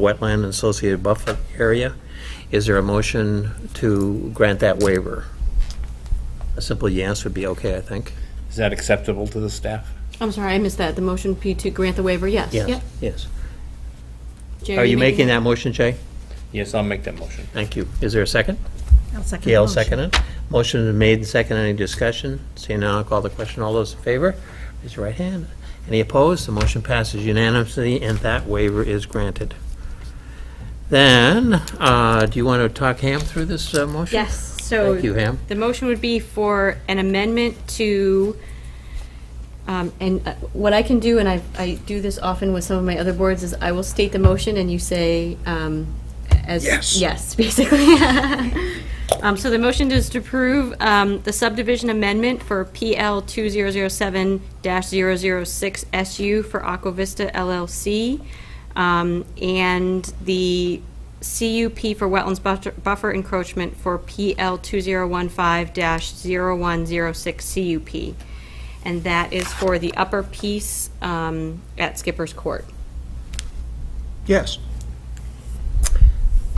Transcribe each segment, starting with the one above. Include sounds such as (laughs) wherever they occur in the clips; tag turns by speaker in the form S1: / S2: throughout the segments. S1: wetland and associated buffer area. Is there a motion to grant that waiver? A simple yes would be okay, I think.
S2: Is that acceptable to the staff?
S3: I'm sorry, I missed that. The motion P to grant the waiver, yes. Yep.
S1: Yes.
S3: Jay,
S1: Are you making that motion, Jay?
S2: Yes, I'll make that motion.
S1: Thank you. Is there a second?
S4: I'll second the
S1: Gail
S4: motion.
S1: seconded. Motion is made and seconded. Any discussion? Seeing none, I'll call the question. All those in favor, raise your right hand. Any opposed? The motion passes unanimously, and that waiver is granted. Then, uh, do you want to talk Ham through this uh, motion?
S3: Yes, so.
S1: Thank you, Ham.
S3: The motion would be for an amendment to, um, and uh, what I can do, and I, I do this often with some of my other boards, is I will state the motion and you say, um, as. Yes. Yes, (laughs) basically. Um, so the motion is to approve, um, the subdivision amendment for PL two zero zero seven 6 SU for Aqua Vista LLC. Um, and the CUP for wetlands buffer- buffer encroachment for PL 2015-0106 CUP. And that is for the upper piece um, at Skipper's Court.
S5: Yes.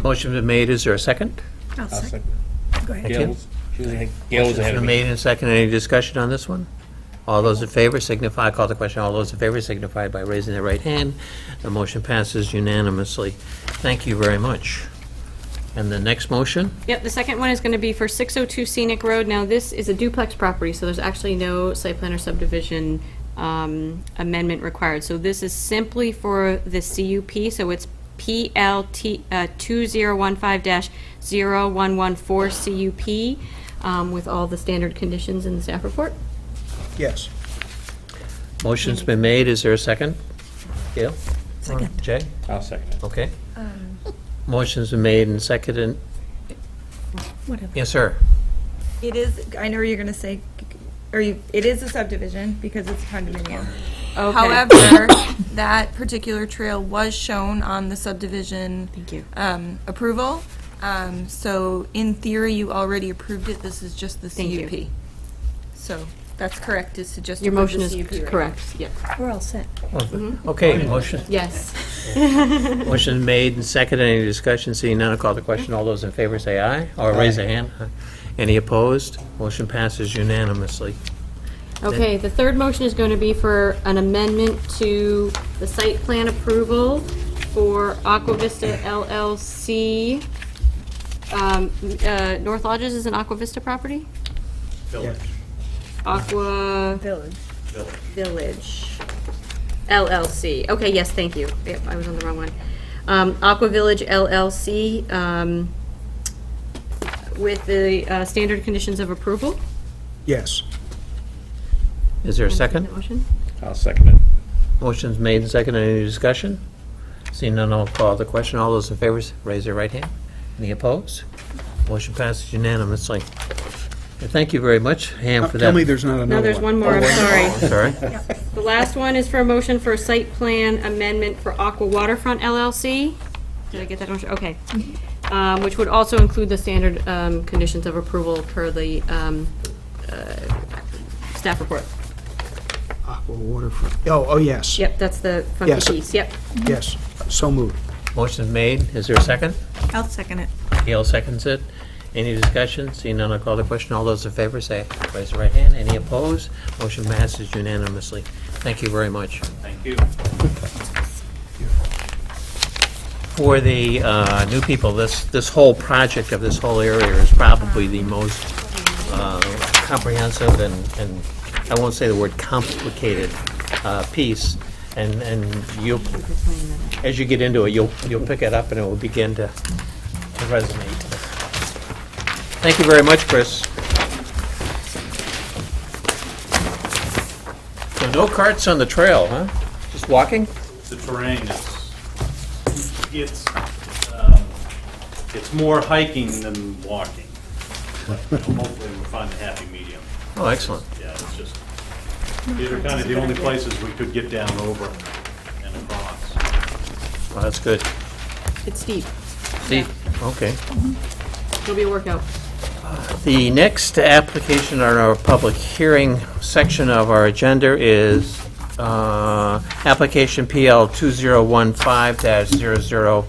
S1: Motion been made. Is there a second?
S4: I'll
S2: I'll
S4: second.
S2: second.
S4: Go ahead.
S1: you.
S2: Gail was- she was ahead- Gail was ahead of
S1: Motion
S2: me.
S1: made and seconded. Any discussion on this one? All those in favor signify, call the question. All those in favor signify by raising their right hand. The motion passes unanimously. Thank you very much. And the next motion?
S3: Yep, the second one is going to be for 602 Scenic Road. Now, this is a duplex property, so there's actually no site plan or subdivision um, amendment required. So this is simply for the CUP, so it's PLT uh, 2015-0114 CUP um, with all the standard conditions in the staff report.
S5: Yes.
S1: Motion's been made, is there a second? Gail?
S4: Second.
S1: Jay?
S2: I'll second it.
S1: Okay. Motion's been made and seconded,
S4: Whatever.
S1: yes, sir.
S6: It is, I know you're gonna say, or you, it is a subdivision because it's a condominium.
S3: Okay. (coughs)
S6: However, that particular trail was shown on the subdivision.
S3: Thank you.
S6: Um, approval, um, so in theory, you already approved it, this is just the
S3: Thank you.
S6: CUP. So, that's correct, is to just.
S3: Your
S6: approve
S3: motion
S6: the
S3: is
S6: CUP right now.
S3: correct, yeah.
S4: We're all set.
S1: Okay, motion,
S3: Yes.
S1: motion made and seconded, any discussion, seeing none, I'll call the question, all those in favor say aye, or raise a hand. Any opposed? Motion passes unanimously.
S3: Okay, the third motion is going to be for an amendment to the site plan approval for Aqua Vista LLC. Um, uh, North Lodges is an Aqua Vista property? Aqua
S6: Village.
S3: Village LLC. Okay, yes, thank you. Yep, I was on the wrong one. Um, Aqua Village LLC um, with the uh, standard conditions of approval.
S5: Yes.
S1: Is there a second?
S3: That motion?
S2: I'll second it.
S1: Motion's made and seconded, any discussion? Seeing none, I'll call the question, all those in favor raise their right hand. Any opposed? Motion passes unanimously. And Thank you very much, Ham, for that. Oh,
S5: Tell me there's not another one.
S3: No, there's one more, I'm sorry.
S1: Sorry?
S3: (laughs) The last one is for a motion for a site plan amendment for Aqua Waterfront LLC. Did I get that? on- Okay. Um, Which would also include the standard um, conditions of approval per the um, uh, staff report.
S5: Aqua waterfront. Oh, oh, yes.
S3: Yep, that's the funky
S5: Yes.
S3: piece, yep.
S5: Yes. So moved.
S1: Motion's made, is there a second?
S4: I'll second it.
S1: Gail seconds it. Any discussion? Seeing none, I'll call the question. All those in favor, say, raise your right hand. Any opposed? Motion passes unanimously. Thank you very much.
S2: Thank you.
S1: For the uh, new people, this, this whole project of this whole area is probably the most uh, comprehensive and, and I won't say the word complicated uh, piece. And, and you'll, as you get into it, you'll, you'll pick it up and it will begin to to resonate. Thank you very much, Chris. So no carts on the trail, huh? Just walking?
S7: the terrain is, it's, um, it's more hiking than walking. But you know, hopefully we'll find a happy medium.
S1: Oh, excellent.
S7: Yeah, it's just, these are kind of the only places we could get down over and across.
S1: Well, that's good.
S3: It's steep.
S1: See, okay.
S3: It'll be a workout.
S1: The next application on our public hearing section of our agenda is uh, application PL 2015-00